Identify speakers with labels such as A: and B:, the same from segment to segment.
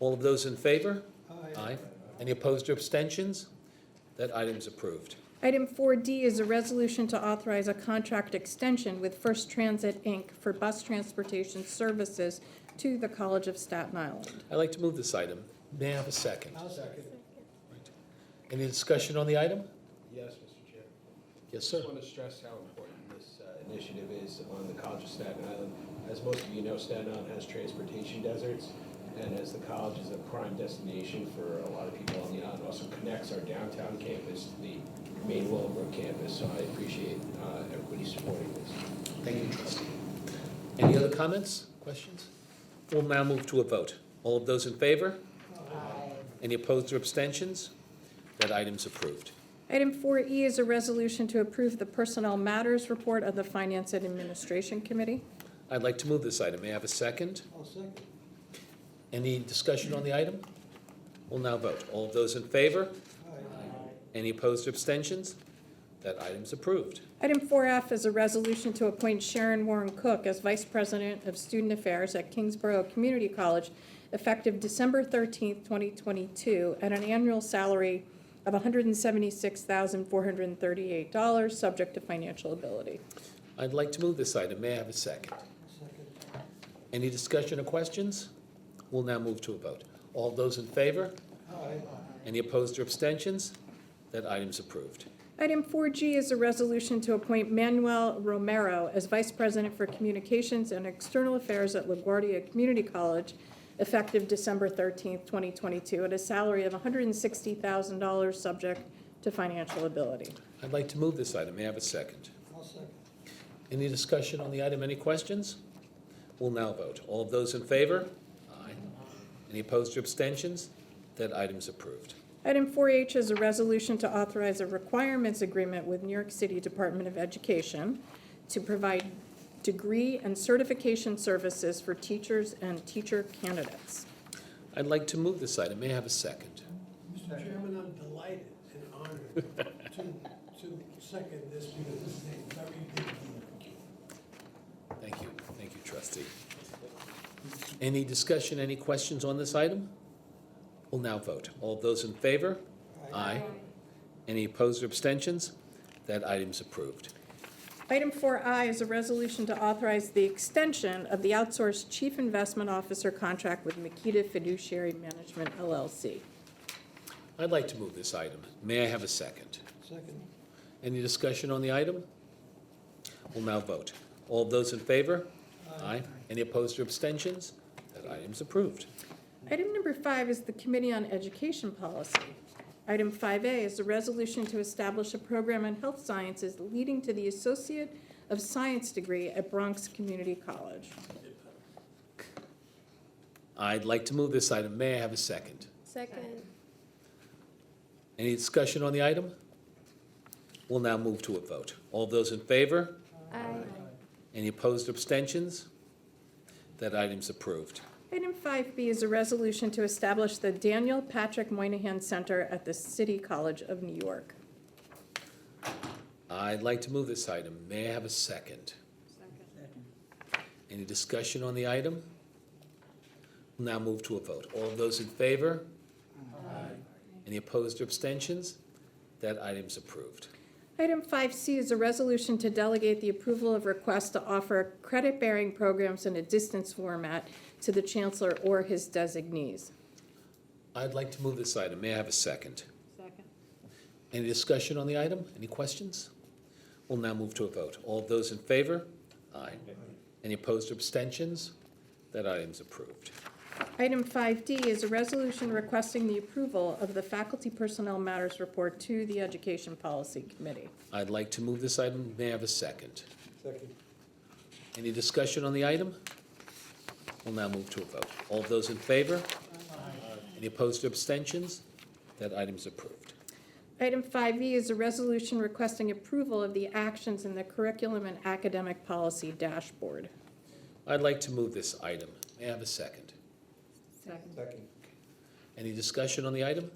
A: All of those in favor? Aye. Any opposed or abstentions? That item's approved.
B: Item 4D is a resolution to authorize a contract extension with First Transit, Inc. for bus transportation services to the College of Staten Island.
A: I'd like to move this item. May I have a second?
C: I'll second.
A: Any discussion on the item?
C: Yes, Mr. Chair.
A: Yes,
C: I
A: sir.
C: just want to stress how important this uh, initiative is on the College of Staten Island. As most of you know, Staten Island has transportation deserts, and as the college is a prime destination for a lot of people on the island, also connects our downtown campus to the main Willowbrook campus, so I appreciate uh, everybody supporting this.
A: Thank you, trustee. Any other comments, questions? We'll now move to a vote. All of those in favor? Aye. Any opposed or abstentions? That item's approved.
B: Item 4E is a resolution to approve the Personnel Matters Report of the Finance and Administration Committee.
A: I'd like to move this item. May I have a second?
C: I'll second.
A: Any discussion on the item? We'll now vote. All of those in favor? Any opposed or abstentions? That item's approved.
B: Item 4F is a resolution to appoint Sharon Warren Cook as Vice President of Student Affairs at Kingsborough Community College effective December 13th, 2022, at an annual salary of $176,438, subject to financial ability.
A: I'd like to move this item. May I have a second? Any discussion or questions? We'll now move to a vote. All those in favor? Any opposed or abstentions? That item's approved.
B: Item 4G is a resolution to appoint Manuel Romero as Vice President for Communications and External Affairs at LaGuardia Community College, effective December 13th, 2022, at a salary of $160,000, subject to financial ability.
A: I'd like to move this item. May I have a second? Any discussion on the item? Any questions? We'll now vote. All of those in favor? Aye. Any opposed or abstentions? That item's approved.
B: Item 4H is a resolution to authorize a requirements agreement with New York City Department of Education to provide degree and certification services for teachers and teacher candidates.
A: I'd like to move this item. May I have a second?
D: Mr. Chairman, I'm delighted and honored to, to second this because this is a very big deal.
A: Thank you. Thank you, trustee. Any discussion, any questions on this item? We'll now vote. All of those in favor? Aye. Any opposed or abstentions? That item's approved.
B: Item 4I is a resolution to authorize the extension of the outsourced chief investment officer contract with Makita Fiduciary Management LLC.
A: I'd like to move this item. May I have a second?
D: Second.
A: Any discussion on the item? We'll now vote. All of those in favor? Aye. Any opposed or abstentions? That item's approved.
B: Item number five is the Committee on Education Policy. Item 5A is a resolution to establish a program in health sciences leading to the Associate of Science degree at Bronx Community College.
A: I'd like to move this item. May I have a second?
E: Second.
A: Any discussion on the item? We'll now move to a vote. All those in favor?
E: Aye.
A: Any opposed or abstentions? That item's approved.
B: Item 5B is a resolution to establish the Daniel Patrick Moynihan Center at the City College of New York.
A: I'd like to move this item. May I have a second? Any discussion on the item? We'll Now move to a vote. All of those in favor? Aye. Any opposed or abstentions? That item's approved.
B: Item 5C is a resolution to delegate the approval of requests to offer credit-bearing programs in a distance format to the chancellor or his designees.
A: I'd like to move this item. May I have a second?
E: Second.
A: Any discussion on the item? Any questions? We'll now move to a vote. All of those in favor? Aye. Any opposed or abstentions? That item's approved.
B: Item 5D is a resolution requesting the approval of the Faculty Personnel Matters Report to the Education Policy Committee.
A: I'd like to move this item. May I have a second?
D: Second.
A: Any discussion on the item? We'll now move to a vote. All of those in favor? Any opposed or abstentions? That item's approved.
B: Item 5E is a resolution requesting approval of the actions in the Curriculum and Academic Policy Dashboard.
A: I'd like to move this item. May I have a second?
E: Second.
D: Second.
A: Any discussion on the item?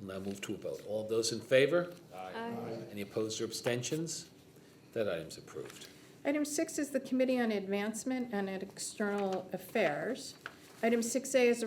A: We'll now move to a vote. All of those in favor?
E: Aye.
A: Any opposed or abstentions? That item's approved.
B: Item six is the Committee on Advancement and External Affairs. Item 6A is a